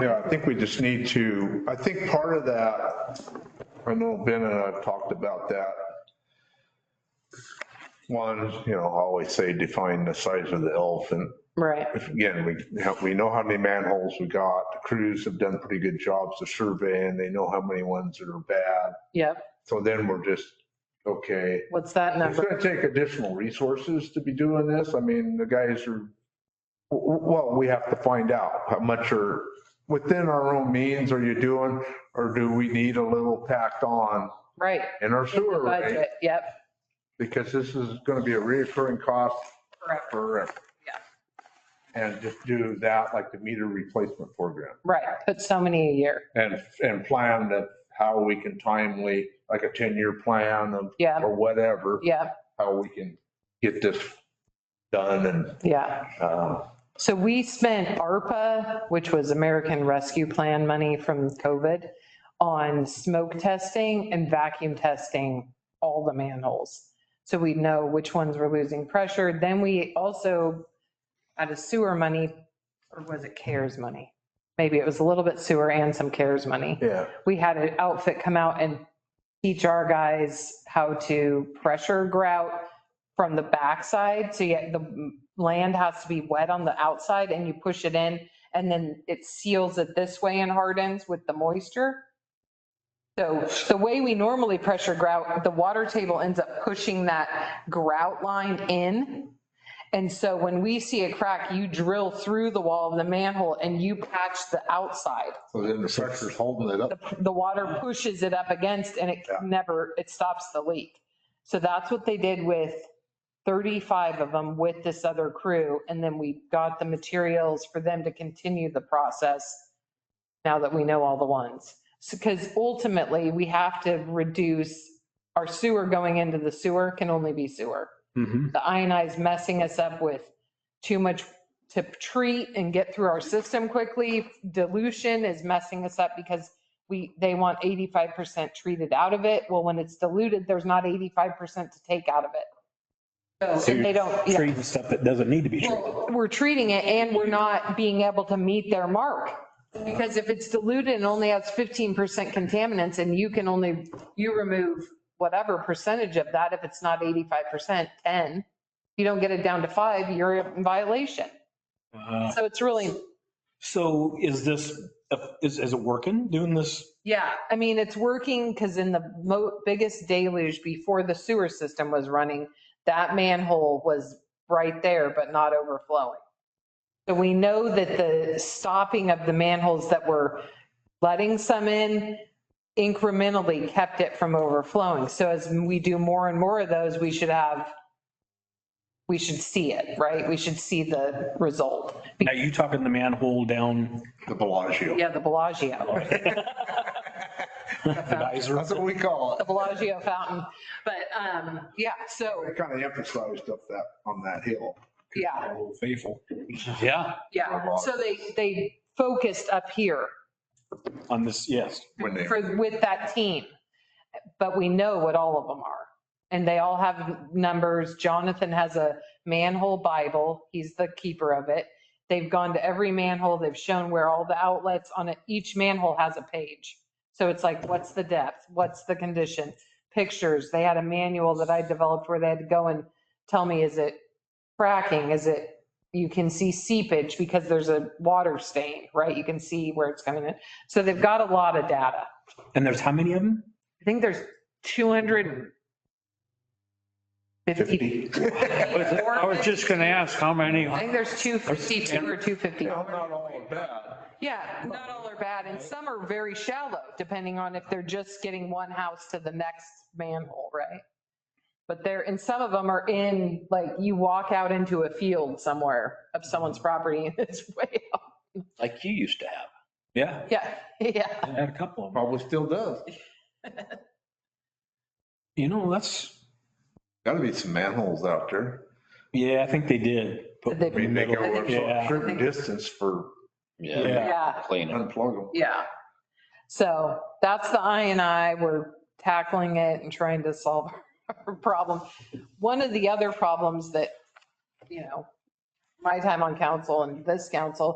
Yeah, I think we just need to, I think part of that, I know Ben and I've talked about that. One, is, you know, I always say define the size of the elephant. Right. If, Again, we, have- we know how many manholes we got. The Crews have done pretty good jobs of surveying. They know how many ones that are bad. Yep. So then we're just, okay, What's that it's number? going to take additional resources to be doing this. I mean, the guys are, w- w- well, we have to find out how much are, within our own means are you doing? Or do we need a little tacked on Right. in our sewer rate? Budget. Yep. Because this is going to be a reoccurring cost Correct. forever. Yeah. And just do that like the meter replacement program Right. Put so many a year. and, and plan that how we can timely, like a 10-year plan of, Yeah. or whatever, Yeah. how we can get this done and Yeah. Uh, So we spent ARPA, which was American Rescue Plan money from COVID, on smoke testing and vacuum testing all the manholes. So we know which ones were losing pressure. Then we also had a sewer money, or was it CARES money? Maybe it was a little bit sewer and some CARES money. Yeah, we had an outfit come out and teach our guys how to pressure grout from the backside. So yeah, the land has to be wet on the outside and you push it in and then it seals it this way and hardens with the moisture. So the way we normally pressure grout, the water table ends up pushing that grout line in. And so when we see a crack, you drill through the wall of the manhole and you patch the outside so then the pressure's holding it up. the water pushes it up against and it Yeah. never, it stops the leak. So that's what they did with 35 of them with this other crew. And then we got the materials for them to continue the process now that we know all the ones. Because ultimately, we have to reduce our sewer going into the sewer can only be sewer. The ionized messing us up with too much to treat and get through our system quickly. Dilution is messing us up because we, they want 85% treated out of it. Well, when it's diluted, there's not 85% to take out of it. So if they don't, yeah, Treating stuff that doesn't need to be treated. we're treating it and we're not being able to meet their mark. Because if it's diluted and only has 15% contaminants and you can only, you remove whatever percentage of that, if it's not 85%, 10, you don't get it down to five, you're in violation. Uh, So it's really, So is this, is, is it working, doing this? yeah, I mean, it's working because in the mo- biggest deluge before the sewer system was running, that manhole was right there, but not overflowing. So we know that the stopping of the manholes that were letting some in incrementally kept it from overflowing. So as we do more and more of those, we should have, we should see it, right? We should see the result. Now, you talking the manhole down The Bellagio. Yeah, the Bellagio. the geyser? That's what we call the it. Bellagio fountain. But um, yeah, so, They kind of emphasized up that, on that hill. yeah, Oh, Faithful. Yeah, yeah. So they, they focused up here on this, yes. When they, for, with that team. But we know what all of them are. And they all have numbers. Jonathan has a manhole Bible. He's the keeper of it. They've gone to every manhole. They've shown where all the outlets on it. Each manhole has a page. So it's like, what's the depth? What's the condition? Pictures. They had a manual that I developed where they had to go and tell me, is it cracking? Is it, you can see seepage because there's a water stain, right? You can see where it's coming in. So they've got a lot of data. And there's how many of them? I think there's 250. I was just going to ask how many, I think there's 252 or 250. all of that. Yeah, not all are bad, and some are very shallow, depending on if they're just getting one house to the next manhole, right? But they're, and some of them are in, like, you walk out into a field somewhere of someone's Mm-hmm. property and it's way out. like you used to have. Yeah, Yeah, yeah. I had a couple of them. Probably still does. You know, that's, Got to be some manholes out there. yeah, I think they did. Put They- I mean, they go a Yeah. certain distance for Yeah. Yeah, Clean it. unplug them. yeah. So that's the I and I, we're tackling it and trying to solve our problem. One of the other problems that, you know, my time on council and this council